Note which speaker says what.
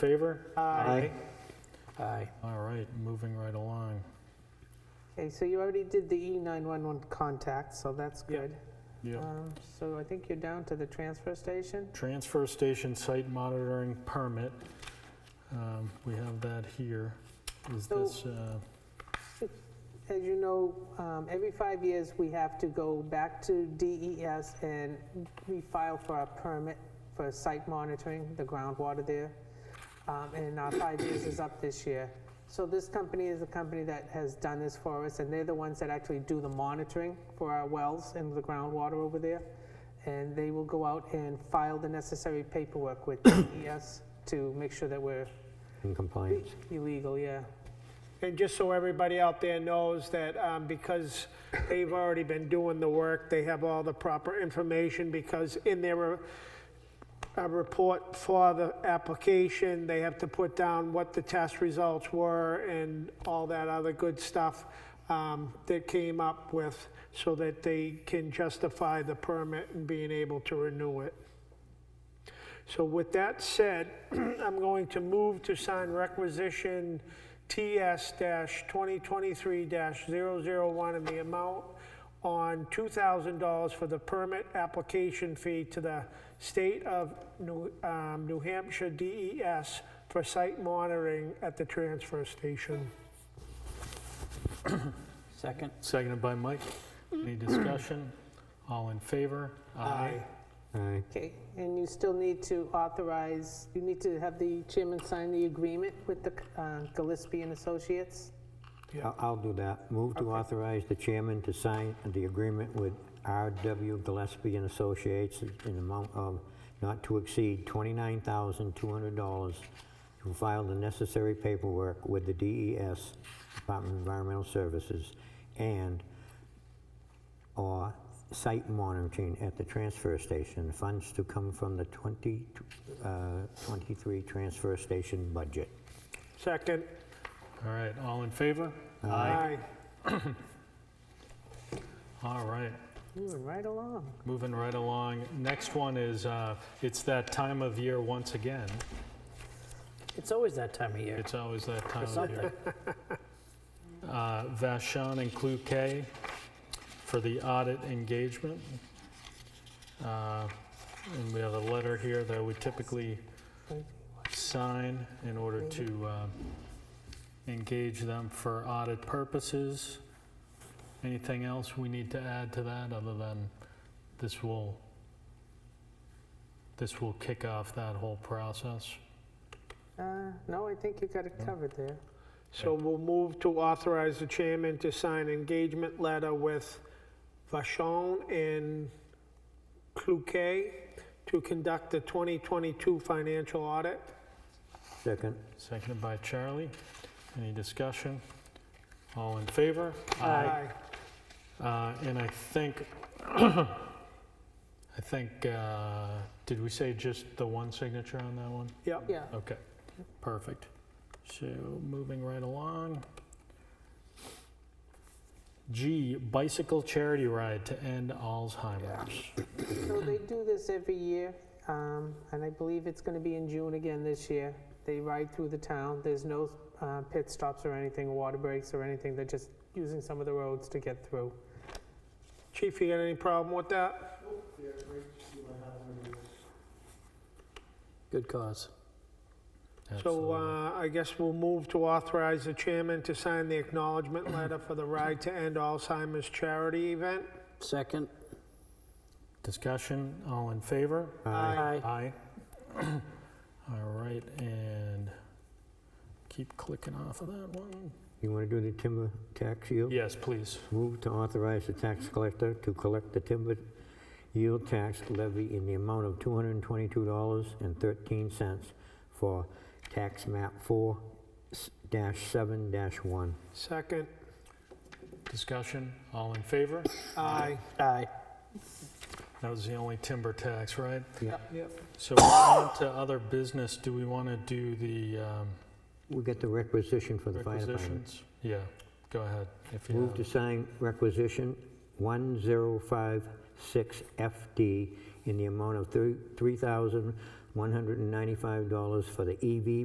Speaker 1: Favor?
Speaker 2: Aye.
Speaker 3: Aye.
Speaker 1: All right, moving right along.
Speaker 2: Okay, so you already did the E E911 contact, so that's
Speaker 1: Yep.
Speaker 2: good.
Speaker 1: Yep.
Speaker 2: Um, So I think you're down to the transfer station.
Speaker 1: Transfer station site monitoring permit. Um, We have that here. Is
Speaker 2: So-
Speaker 1: this, uh,
Speaker 2: As you know, um, every five years, we have to go back to DES and we file for a permit for site monitoring, the groundwater there. Um, And our five years is up this year. So this company is the company that has done this for us, and they're the ones that actually do the monitoring for our wells and the groundwater over there. And they will go out and file the necessary paperwork with DES to make sure that we're
Speaker 3: In compliance.
Speaker 2: illegal, yeah.
Speaker 4: And just so everybody out there knows that um, because they've already been doing the work, they have all the proper information because in their uh, uh, report for the application, they have to put down what the test results were and all that other good stuff um, that came up with so that they can justify the permit and being able to renew it. So with that said, I'm going to move to sign requisition TS-2023-001 in the amount on $2,000 for the permit application fee to the State of New um, New Hampshire DES for site monitoring at the transfer station.
Speaker 3: Second.
Speaker 1: seconded by Mike? Any discussion? All in favor?
Speaker 3: Aye.
Speaker 2: Okay, and you still need to authorize, you need to have the chairman sign the agreement with the uh, Gillespie and Associates?
Speaker 4: Yeah.
Speaker 3: I'll- I'll do that. Move to authorize the chairman to sign the agreement with R.W. Gillespie and Associates in the amount of not to exceed $29,200 to file the necessary paperwork with the DES, Department of Environmental Services, and/or site monitoring at the transfer station. Funds to come from the 2023 transfer station budget.
Speaker 4: Second.
Speaker 1: All right, all in favor?
Speaker 4: Aye.
Speaker 1: All right,
Speaker 2: Moving right along.
Speaker 1: moving right along. Next one is, uh, it's that time of year once again.
Speaker 5: It's always that time of year
Speaker 1: It's always that time
Speaker 5: for
Speaker 1: of year.
Speaker 5: something.
Speaker 1: Uh, Vashon and Cloquet for the audit engagement. Uh, And we have a letter here that we typically sign in order to uh, engage them for audit purposes. Anything else we need to add to that, other than this will, this will kick off that whole process?
Speaker 2: Uh, No, I think you got it covered there.
Speaker 4: So we'll move to authorize the chairman to sign engagement letter with Vachon and Cloquet to conduct the 2022 financial audit.
Speaker 3: Second.
Speaker 1: Seconded by Charlie. Any discussion? All in favor? Uh, And I think, I think, uh, did we say just the one signature on that one?
Speaker 4: Yep.
Speaker 2: Yeah,
Speaker 1: Okay, perfect. So moving right along. G, bicycle charity ride to end Alzheimer's.
Speaker 2: so they do this every year, um, and I believe it's going to be in June again this year. They ride through the town, there's no uh, pit stops or anything, water breaks or anything, they're just using some of the roads to get through.
Speaker 4: Chief, you got any problem with that?
Speaker 5: Good cause.
Speaker 4: So
Speaker 1: Absolutely.
Speaker 4: uh, I guess we'll move to authorize the chairman to sign the acknowledgement letter for the Ride to End Alzheimer's charity event.
Speaker 5: Second.
Speaker 1: Discussion, all in favor? Aye.
Speaker 4: Aye.
Speaker 1: All right, and keep clicking off of that one.
Speaker 3: You want to do the timber tax yield?
Speaker 1: Yes, please.
Speaker 3: Move to authorize the tax collector to collect the timber yield tax levy in the amount of $222.13 for tax map 4-7-1.
Speaker 4: Second.
Speaker 1: Discussion, all in favor?
Speaker 4: Aye.
Speaker 5: Aye.
Speaker 1: That was the only timber tax, right?
Speaker 3: Yeah.
Speaker 4: Yep.
Speaker 1: So we're on to other business. Do we want to do the um,
Speaker 3: We got the requisition for the fire department.
Speaker 1: requisitions? Yeah, go ahead. if you
Speaker 3: Move
Speaker 1: have
Speaker 3: to
Speaker 1: it.
Speaker 3: sign requisition 1056FD in the E amount of thir- $3,195 for the EV